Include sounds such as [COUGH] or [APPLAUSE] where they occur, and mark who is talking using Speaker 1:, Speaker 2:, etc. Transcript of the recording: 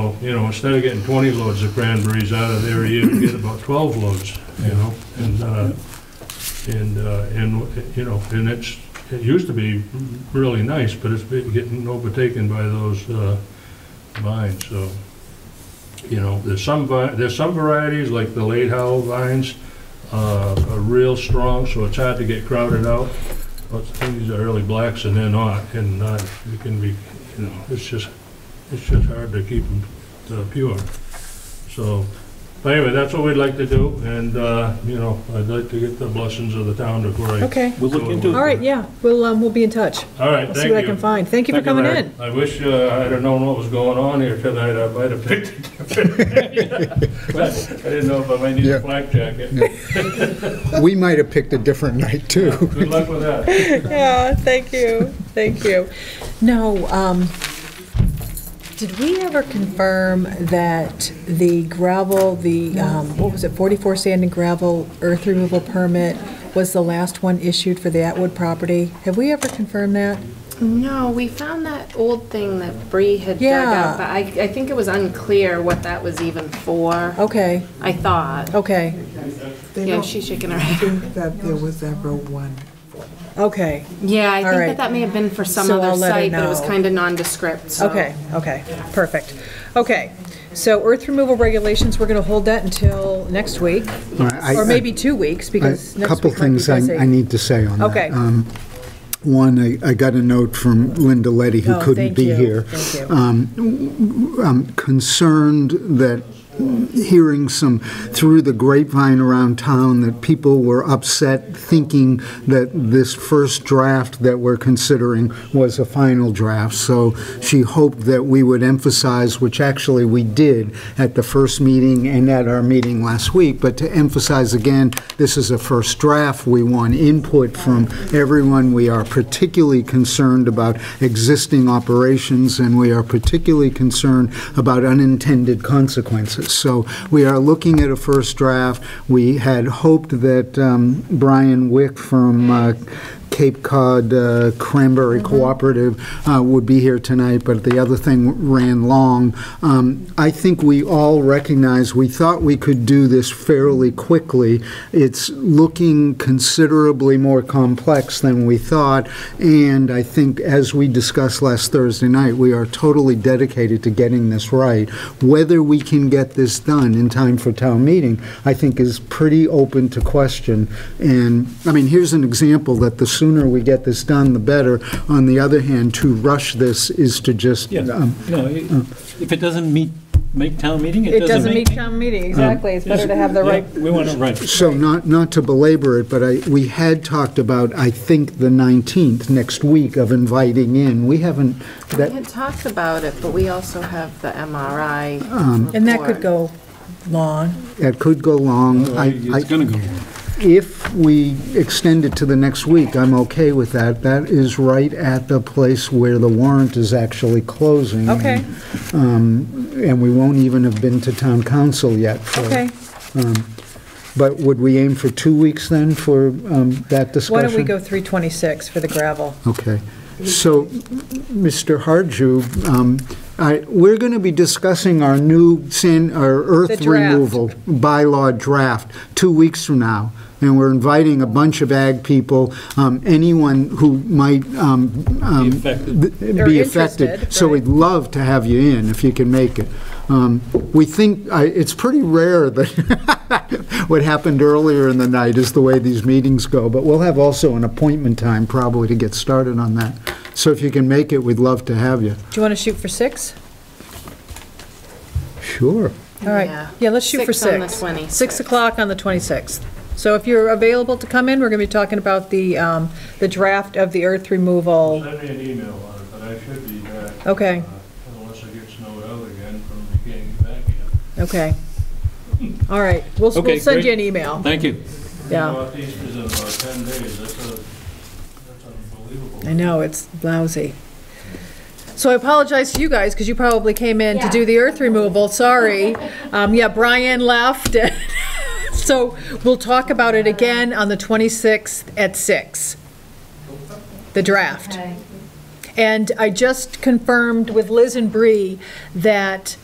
Speaker 1: So, you know, instead of getting 20 loads of cranberries out of there, you get about 12 loads, you know? And, uh, and, uh, and, you know, and it's, it used to be really nice, but it's been getting overtaken by those uh, vines, so. You know, there's some, vi- there's some varieties, like the late howl vines, uh, are real strong, so it's hard to get crowded out. But these are early blacks and they're not, and not, you can be, you know, it's just, it's just hard to keep them pure. So, but anyway, that's what we'd like to do, and, uh, you know, I'd like to get the blessings of the town to where I.
Speaker 2: Okay.
Speaker 3: We'll look into it.
Speaker 2: All right, yeah, we'll, um, we'll be in touch.
Speaker 1: All right,
Speaker 2: I'll
Speaker 1: thank
Speaker 2: see what I can
Speaker 1: you.
Speaker 2: find. Thank you for
Speaker 3: Thank you,
Speaker 2: coming
Speaker 3: Larry.
Speaker 2: in.
Speaker 1: I wish uh, I'd have known what was going on here tonight, I might have picked it. [LAUGHS] But I didn't know if I might need
Speaker 4: Yeah.
Speaker 1: a flak jacket.
Speaker 4: We might have picked a different night, too.
Speaker 1: Good luck with that.
Speaker 2: [LAUGHS] Yeah, thank you, thank you. No, um, did we ever confirm that the gravel, the, um, what was it, 44 sand and gravel earth removal permit was the last one issued for the Atwood property? Have we ever confirmed that?
Speaker 5: No, we found that old thing that Bree had dug
Speaker 2: Yeah.
Speaker 5: up, but I, I think it was unclear what that was even for,
Speaker 2: Okay,
Speaker 5: I thought.
Speaker 2: okay,
Speaker 6: They
Speaker 5: Yeah,
Speaker 6: don't
Speaker 5: she's shaking her head. [LAUGHS]
Speaker 6: think that there was ever one.
Speaker 2: okay,
Speaker 5: Yeah, I
Speaker 2: All
Speaker 5: think
Speaker 2: right.
Speaker 5: that that may have been for some
Speaker 2: So
Speaker 5: other
Speaker 2: I'll let her
Speaker 5: site, but it was
Speaker 2: know.
Speaker 5: kind of nondescript, so.
Speaker 2: okay, okay, perfect. Okay, so earth removal regulations, we're going to hold that until next week, or maybe two weeks, because
Speaker 4: A
Speaker 2: next
Speaker 4: couple
Speaker 2: week might be
Speaker 4: things I
Speaker 2: busy.
Speaker 4: I need to say on that.
Speaker 2: Okay.
Speaker 4: Um, One, I I got a note from Linda Letty, who
Speaker 2: Oh,
Speaker 4: couldn't
Speaker 2: thank
Speaker 4: be
Speaker 2: you,
Speaker 4: here. Um,
Speaker 2: Thank you.
Speaker 4: concerned that hearing some through the grapevine around town that people were upset thinking that this first draft that we're considering was a final draft. So she hoped that we would emphasize, which actually we did at the first meeting and at our meeting last week, but to emphasize again, this is a first draft. We want input from everyone. We are particularly concerned about existing operations, and we are particularly concerned about unintended consequences. So we are looking at a first draft. We had hoped that um, Brian Wick from uh, Cape Cod uh, Cranberry Cooperative uh, would be here tonight, but the other thing ran long. Um, I think we all recognize, we thought we could do this fairly quickly. It's looking considerably more complex than we thought, and I think, as we discussed last Thursday night, we are totally dedicated to getting this right. Whether we can get this done in time for town meeting, I think is pretty open to question. And, I mean, here's an example that the sooner we get this done, the better. On the other hand, to rush this is to just,
Speaker 3: Yeah,
Speaker 4: um,
Speaker 3: no, i- if it doesn't meet, make town meeting,
Speaker 2: It doesn't meet town meeting,
Speaker 4: Um,
Speaker 2: exactly. It's better to have the
Speaker 3: Yeah,
Speaker 2: right,
Speaker 3: We want it right.
Speaker 4: So not, not to belabor it, but I, we had talked about, I think, the 19th, next week, of inviting in. We haven't,
Speaker 5: We
Speaker 4: that,
Speaker 5: had talked about it, but we also have the MRI
Speaker 2: and that could
Speaker 5: report.
Speaker 2: go long.
Speaker 4: that could go long. I- I-
Speaker 3: It's going to go.
Speaker 4: If we extend it to the next week, I'm okay with that. That is right at the place where the warrant is actually closing.
Speaker 2: Okay,
Speaker 4: And we won't even have been to town council yet. for-
Speaker 2: okay.
Speaker 4: But would we aim for two weeks then for um, that discussion?
Speaker 2: Why don't we go 326 for the gravel?
Speaker 4: Okay. So, Mr. Harju, um, I- we're going to be discussing our new sand, our earth
Speaker 2: The draft.
Speaker 4: removal bylaw draft two weeks from now. And we're inviting a bunch of ag people, um, anyone who might um, um,
Speaker 3: Be affected.
Speaker 4: th-
Speaker 2: Or
Speaker 4: be
Speaker 2: interested,
Speaker 4: affected. So
Speaker 2: right.
Speaker 4: we'd love to have you in if you can make it. Um, We think, I- it's pretty rare that [LAUGHS] what happened earlier in the night is the way these meetings go, but we'll have also an appointment time probably to get started on that. So if you can make it, we'd love to have you.
Speaker 2: Do you want to shoot for 6?
Speaker 4: Sure.
Speaker 2: All right,
Speaker 5: Yeah.
Speaker 2: yeah, let's shoot for 6.
Speaker 5: Six on the 26th.
Speaker 2: 6 o'clock on the 26th. So if you're available to come in, we're going to be talking about the, um, the draft of the earth removal.
Speaker 1: Send me an email on it, but I should be back.
Speaker 2: Okay.
Speaker 1: uh, Unless I get snowed out again from getting back here.
Speaker 2: Okay. All right, we'll,
Speaker 3: Okay,
Speaker 2: we'll send you
Speaker 3: great.
Speaker 2: an email.
Speaker 3: Thank you.
Speaker 2: Yeah,
Speaker 1: Northeast is in about 10 days, that's a, that's unbelievable.
Speaker 2: I know, it's lousy. So I apologize to you guys, because you probably came in to
Speaker 5: Yeah.
Speaker 2: do the earth removal, sorry. Um, yeah, Brian left. [LAUGHS] So we'll talk about it again on the 26th at 6. The draft. And I just confirmed with Liz and Bree that